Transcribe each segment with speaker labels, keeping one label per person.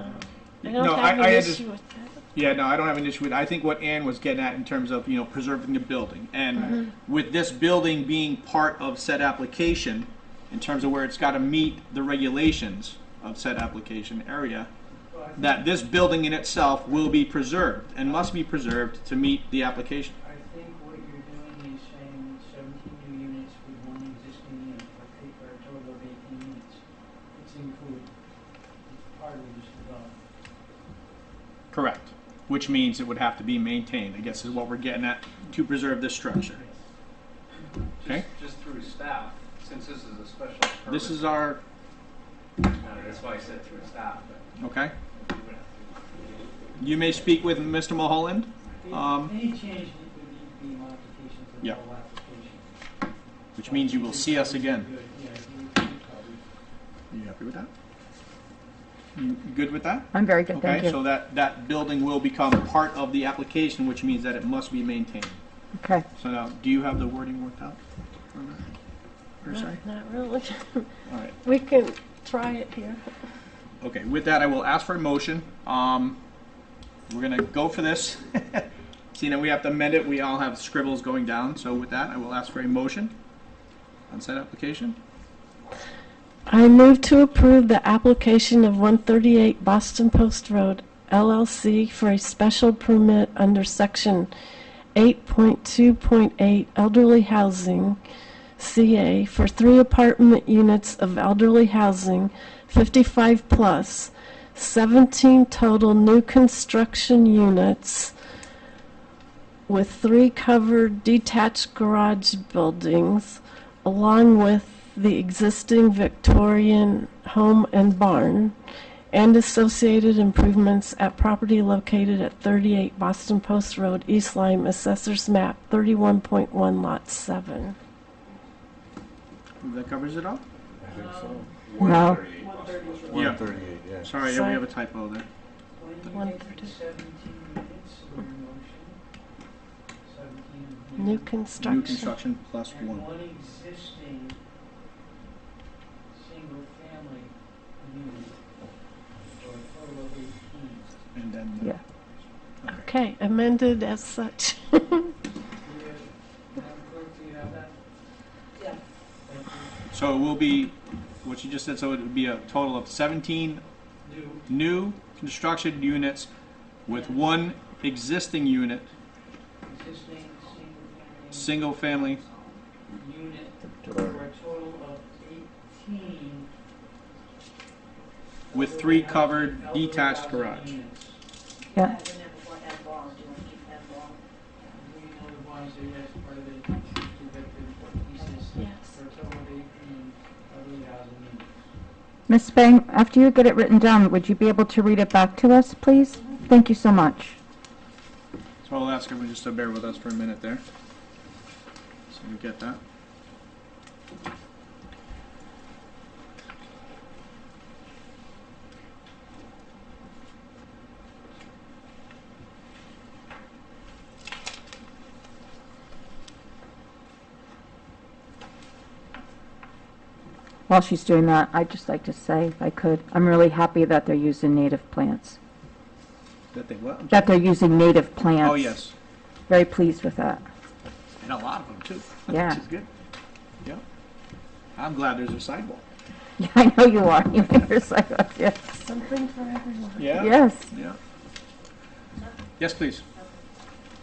Speaker 1: I don't
Speaker 2: No,
Speaker 1: have
Speaker 2: I- I
Speaker 1: an
Speaker 2: under-
Speaker 1: issue with that.
Speaker 2: Yeah, no, I don't have an issue with. I think what Ann was getting at in terms of you know preserving the building, and with this building being part of said application, in terms of where it's got to meet the regulations of said application area, that this building in itself will be preserved and must be preserved to meet the application.
Speaker 3: I think what you're doing is saying seventeen new units with one existing unit, for three, for a total of eighteen units. It's included, it's part of this development.
Speaker 2: Correct. Which means it would have to be maintained. I guess is what we're getting at to preserve this structure. Okay.
Speaker 4: Just, just through staff, since this is a special permit.
Speaker 2: This is our
Speaker 4: uh, That's why I said through staff, but
Speaker 2: okay.
Speaker 4: we would have
Speaker 2: You may speak with Mr. Mulholland. Um,
Speaker 3: Any change that would need to be modifications of the
Speaker 2: Yeah.
Speaker 3: whole application.
Speaker 2: Which means you will see us again.
Speaker 3: Yeah, you- you probably-
Speaker 2: You happy with that? You good with that?
Speaker 5: I'm very good, thank
Speaker 2: Okay, so
Speaker 5: you.
Speaker 2: that, that building will become part of the application, which means that it must be maintained.
Speaker 5: Okay.
Speaker 2: So now, do you have the wording worked out? or not? Per se?
Speaker 1: Not not really.
Speaker 2: All right,
Speaker 1: We can try it here.
Speaker 2: okay, with that, I will ask for a motion. Um, we're gonna go for this. Seeing that we have to amend it, we all have scribbles going down, so with that, I will ask for a motion on said application.
Speaker 1: I move to approve the application of 138 Boston Post Road LLC for a special permit under Section 8.2.8 Elderly Housing CA for three apartment units of elderly housing, 55 plus, 17 total new construction units with three covered detached garage buildings along with the existing Victorian home and barn and associated improvements at property located at 38 Boston Post Road, East Lyme, Assessor's Map, 31.1, Lot 7.
Speaker 2: That covers it all?
Speaker 6: I think so.
Speaker 5: No.
Speaker 6: 138.
Speaker 2: Yeah.
Speaker 6: 138, yeah.
Speaker 2: Sorry, yeah, we have a typo there.
Speaker 3: When you
Speaker 1: One
Speaker 3: take
Speaker 1: thirty.
Speaker 3: the seventeen units in your motion, seventeen
Speaker 1: New
Speaker 3: units,
Speaker 2: New
Speaker 1: construction.
Speaker 2: construction plus
Speaker 3: And
Speaker 2: one.
Speaker 3: one existing single-family unit, for a total of eighteen.
Speaker 2: And then.
Speaker 5: Yeah.
Speaker 1: Okay, amended as such.
Speaker 3: Do you have, Madam Clerk, do you have that? Yeah.
Speaker 2: So it will be, what you just said, so it would be a total of 17
Speaker 3: New,
Speaker 2: new construction units with one existing unit,
Speaker 3: existing, single-family
Speaker 2: single family.
Speaker 3: unit,
Speaker 6: Total.
Speaker 3: for a total of eighteen.
Speaker 2: With
Speaker 3: elderly
Speaker 2: three
Speaker 3: housing-
Speaker 2: covered
Speaker 3: elderly
Speaker 2: detached
Speaker 3: housing
Speaker 2: garage.
Speaker 3: units.
Speaker 5: Yeah.
Speaker 7: That was never what that ball, do you want to keep that ball?
Speaker 3: We know the ones that that's part of the two victims, pieces,
Speaker 1: Yes.
Speaker 3: for a total of eighteen elderly housing units.
Speaker 5: Ms. Spang, after you get it written down, would you be able to read it back to us, please? Thank you so much.
Speaker 2: So I'll ask everyone just to bear with us for a minute there. So we get that.
Speaker 5: While she's doing that, I'd just like to say, if I could, I'm really happy that they're using native plants,
Speaker 2: That they what? I'm sorry.
Speaker 5: that they're using native plants.
Speaker 2: Oh, yes.
Speaker 5: Very pleased with that.
Speaker 2: And a lot of them too.
Speaker 5: Yeah.
Speaker 2: Which is good. Yeah. I'm glad there's a sidewalk.
Speaker 5: Yeah, I know you are. You make your sidewalk, yes.
Speaker 1: Something for everyone.
Speaker 2: Yeah?
Speaker 5: Yes.
Speaker 2: Yeah. Yes, please.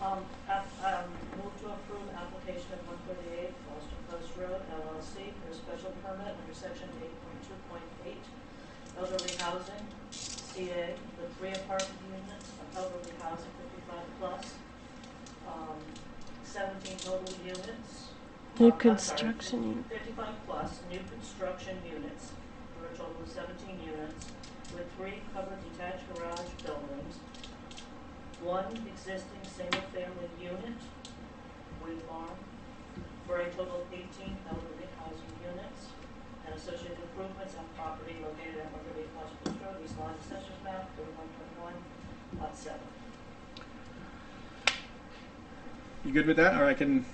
Speaker 7: Um, app- um, move to approve application of one thirty-eight Foster Post Road LLC for a special permit under section eight point two point eight elderly housing, CA, with three apartment units of elderly housing fifty-five plus, um, seventeen total units.
Speaker 1: New
Speaker 7: Um, I'm sorry,
Speaker 1: construction unit.
Speaker 7: 55 plus new construction units for a total of 17 units with three covered detached garage buildings, one existing single-family unit with barn for a total of 18 elderly housing units and associated improvements on property located at 138 Washington Road, East Line, Assessor's Map, 31.1, Lot 7.
Speaker 2: You good with that? Or I can